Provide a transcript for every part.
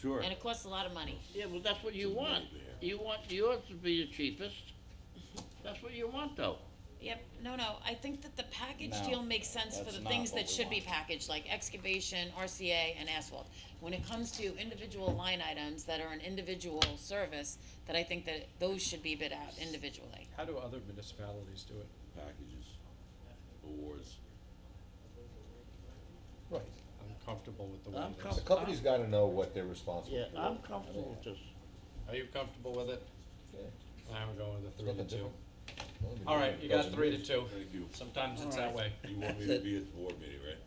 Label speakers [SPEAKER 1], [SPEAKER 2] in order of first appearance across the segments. [SPEAKER 1] Sure.
[SPEAKER 2] And it costs a lot of money.
[SPEAKER 3] Yeah, well, that's what you want. You want yours to be the cheapest. That's what you want, though.
[SPEAKER 2] Yep, no, no, I think that the package
[SPEAKER 1] No,
[SPEAKER 2] deal makes sense for
[SPEAKER 1] that's
[SPEAKER 2] the
[SPEAKER 1] not
[SPEAKER 2] things
[SPEAKER 1] what
[SPEAKER 2] that
[SPEAKER 1] we
[SPEAKER 2] should be
[SPEAKER 1] want.
[SPEAKER 2] packaged, like excavation, RCA, and asphalt. When it comes to individual line items that are an individual service, that I think that those should be bid out individually.
[SPEAKER 4] How do other municipalities do it?
[SPEAKER 1] Packages, awards.
[SPEAKER 5] Right.
[SPEAKER 4] I'm comfortable with the way
[SPEAKER 3] I'm
[SPEAKER 4] it
[SPEAKER 3] com-
[SPEAKER 4] is.
[SPEAKER 5] The company's gotta know what they're responsible
[SPEAKER 3] Yeah,
[SPEAKER 5] for.
[SPEAKER 3] I'm comfortable with this.
[SPEAKER 4] Are you comfortable with it?
[SPEAKER 5] Yeah.
[SPEAKER 4] I'm going with the three to
[SPEAKER 5] nothing
[SPEAKER 4] two.
[SPEAKER 5] different. Well, I mean,
[SPEAKER 4] All right, you got
[SPEAKER 5] dozen
[SPEAKER 4] three to
[SPEAKER 5] years.
[SPEAKER 4] two.
[SPEAKER 1] Thank you.
[SPEAKER 4] Sometimes it's that way.
[SPEAKER 1] You want me to be at the board meeting, right?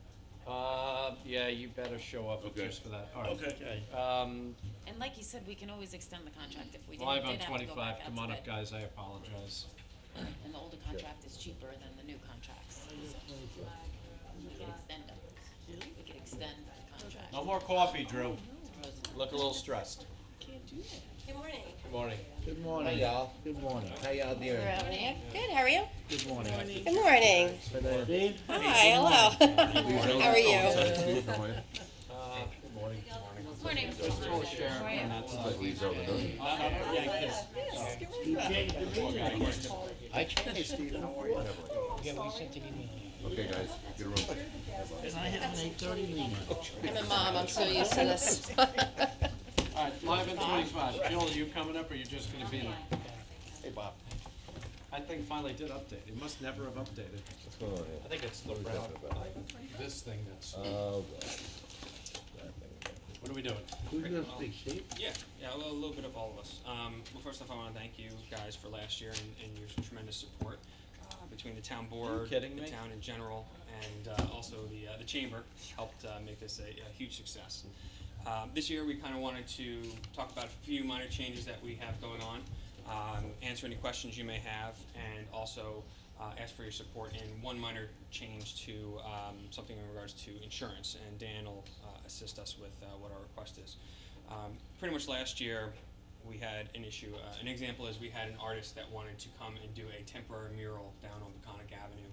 [SPEAKER 4] Uh, yeah, you better show up
[SPEAKER 1] Okay.
[SPEAKER 4] just for that. All right.
[SPEAKER 3] Okay.
[SPEAKER 4] Um,
[SPEAKER 2] And like you said, we can always extend the contract if we did,
[SPEAKER 4] live
[SPEAKER 2] did
[SPEAKER 4] on
[SPEAKER 2] have to go
[SPEAKER 4] twenty-five.
[SPEAKER 2] back out
[SPEAKER 4] Come on
[SPEAKER 2] to
[SPEAKER 4] up,
[SPEAKER 2] bid.
[SPEAKER 4] guys. I apologize.
[SPEAKER 2] And the older contract is cheaper than the new contracts. so We could extend them. We could extend the contract.
[SPEAKER 4] No more coffee,
[SPEAKER 2] Oh,
[SPEAKER 4] Drew. Look a little stressed.
[SPEAKER 6] Good morning.
[SPEAKER 4] Good morning.
[SPEAKER 3] Good
[SPEAKER 5] Hi,
[SPEAKER 3] morning.
[SPEAKER 5] y'all.
[SPEAKER 3] Good morning.
[SPEAKER 5] How y'all doing?
[SPEAKER 6] Good, how are you?
[SPEAKER 3] Good morning.
[SPEAKER 6] Good morning.
[SPEAKER 3] Good
[SPEAKER 6] Hi, hello. How
[SPEAKER 1] Oh,
[SPEAKER 6] are you?
[SPEAKER 4] Uh, good morning.
[SPEAKER 2] Morning.
[SPEAKER 4] Throw a share on that side.
[SPEAKER 3] I changed, Steve, how are you?
[SPEAKER 1] Okay, guys, get a room.
[SPEAKER 3] And I have an eight thirty meeting.
[SPEAKER 6] I'm a mom, I'm so used to this.
[SPEAKER 4] All right, live on twenty-five. Jill, are you coming up or are you just gonna be there? Hey, Bob. I think finally did update. It must never have updated.
[SPEAKER 5] What's going on
[SPEAKER 4] I think it's the round, this thing that's,
[SPEAKER 5] here? Oh,
[SPEAKER 4] what are we doing?
[SPEAKER 3] Who's gonna speak, Steve?
[SPEAKER 7] Yeah, yeah, a little, little bit of all of us. Um, well, first off, I want to thank you guys for last year and, and your tremendous support uh, between the town board,
[SPEAKER 4] kidding
[SPEAKER 7] the
[SPEAKER 4] me?
[SPEAKER 7] town in general, and uh, also the uh, the chamber helped uh, make this a, a huge success. Um, this year, we kind of wanted to talk about a few minor changes that we have going on, um, answer any questions you may have, and also uh, ask for your support in one minor change to um, something in regards to insurance. And Dan will uh, assist us with uh, what our request is. Um, pretty much last year, we had an issue. Uh, an example is we had an artist that wanted to come and do a temporary mural down on Peconic Avenue.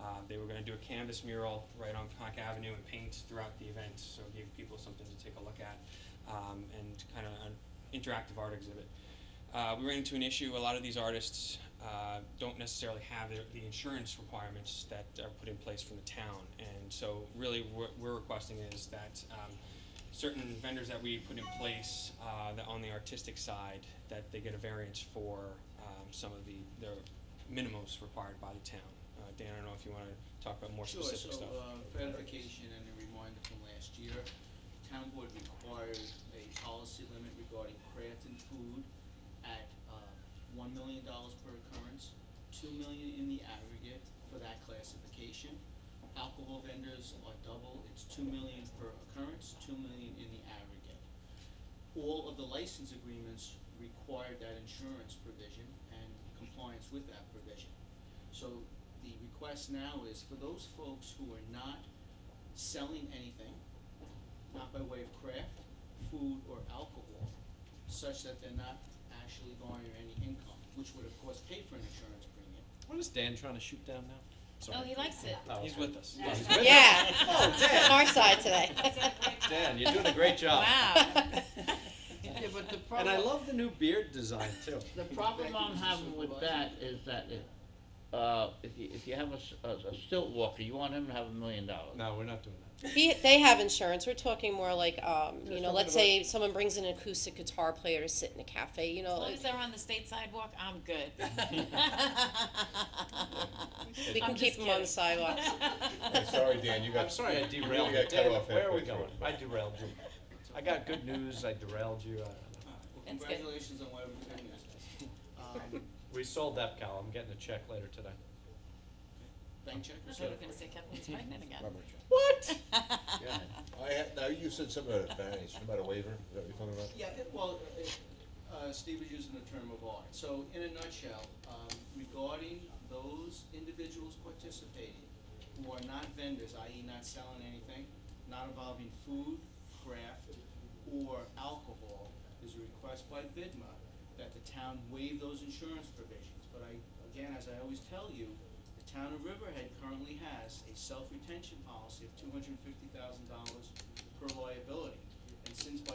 [SPEAKER 7] Uh, they were going to do a canvas mural right on Peconic Avenue and paint throughout the event, so it gave people something to take a look at um, and kind of an interactive art exhibit. Uh, we ran into an issue. A lot of these artists uh, don't necessarily have the, the insurance requirements that are put in place from the town, and so really what we're requesting is that um, certain vendors that we put in place uh, that on the artistic side that they get a variance for um, some of the their minimums required by the town. Uh, Dan, I don't know if you want to talk about more specific
[SPEAKER 8] Sure,
[SPEAKER 7] stuff.
[SPEAKER 8] so, uh, clarification and a reminder from last year, town board required a policy limit regarding craft and food at, uh, one million dollars per occurrence, two million in the aggregate for that classification. Alcohol vendors are double, it's two million per occurrence, two million in the aggregate all of the license agreements required that insurance provision and compliance with that provision. So the request now is for those folks who are not selling anything, not by way of craft, food, or alcohol, such that they're not actually garnering any income, which would of course pay for an insurance premium.
[SPEAKER 4] What is Dan trying to shoot down now?
[SPEAKER 2] Oh, he likes it. Oh,
[SPEAKER 4] No,
[SPEAKER 7] uh, He's with us.
[SPEAKER 6] Yeah. It's on our side today.
[SPEAKER 4] Dan, you're doing a great job.
[SPEAKER 2] Wow.
[SPEAKER 3] Yeah, but the
[SPEAKER 4] And I
[SPEAKER 3] problem,
[SPEAKER 4] love the new beard design too.
[SPEAKER 3] the problem I'm having with that is that if, uh, if you, if you have a, s- a- a stilt walker, you want him to have a million dollars.
[SPEAKER 4] No, we're not doing that.
[SPEAKER 6] He, they have insurance. We're talking more like, um,
[SPEAKER 3] Just
[SPEAKER 6] you know,
[SPEAKER 3] talking
[SPEAKER 6] let's say someone brings an acoustic guitar player to sit in a cafe, you know,
[SPEAKER 2] As long
[SPEAKER 6] like,
[SPEAKER 2] as they're on the state sidewalk, I'm good.
[SPEAKER 6] we can
[SPEAKER 2] I'm
[SPEAKER 6] keep
[SPEAKER 2] just
[SPEAKER 6] them on the
[SPEAKER 2] kidding.
[SPEAKER 6] sidewalks.
[SPEAKER 5] I'm sorry, Dan, you got.
[SPEAKER 4] I'm sorry I
[SPEAKER 5] you
[SPEAKER 4] derailed
[SPEAKER 5] really
[SPEAKER 4] you.
[SPEAKER 5] got cut
[SPEAKER 4] Dan,
[SPEAKER 5] off
[SPEAKER 4] where are we
[SPEAKER 5] halfway
[SPEAKER 4] going?
[SPEAKER 5] through.
[SPEAKER 4] I derailed you. I got good news, I derailed you, I don't know.
[SPEAKER 8] Well,
[SPEAKER 2] That's good.
[SPEAKER 8] congratulations on whatever you're doing this. Um,
[SPEAKER 4] We sold EPCAL, I'm getting a check later today.
[SPEAKER 8] bank check
[SPEAKER 2] I
[SPEAKER 8] or
[SPEAKER 2] thought you were gonna
[SPEAKER 8] something?
[SPEAKER 2] say Kathleen's pregnant again.
[SPEAKER 6] What?
[SPEAKER 5] I had, now you said something about a variance, something about a waiver, is that what you're talking about?
[SPEAKER 8] Yeah, it- well, it- uh, Steve was using the term of art. So in a nutshell, um, regarding those individuals participating who are not vendors, i.e. not selling anything, not involving food, craft, or alcohol, there's a request by BIDMA that the town waive those insurance provisions. But I, again, as I always tell you, the town of Riverhead currently has a self-retention policy of two hundred and fifty thousand dollars per liability. And since by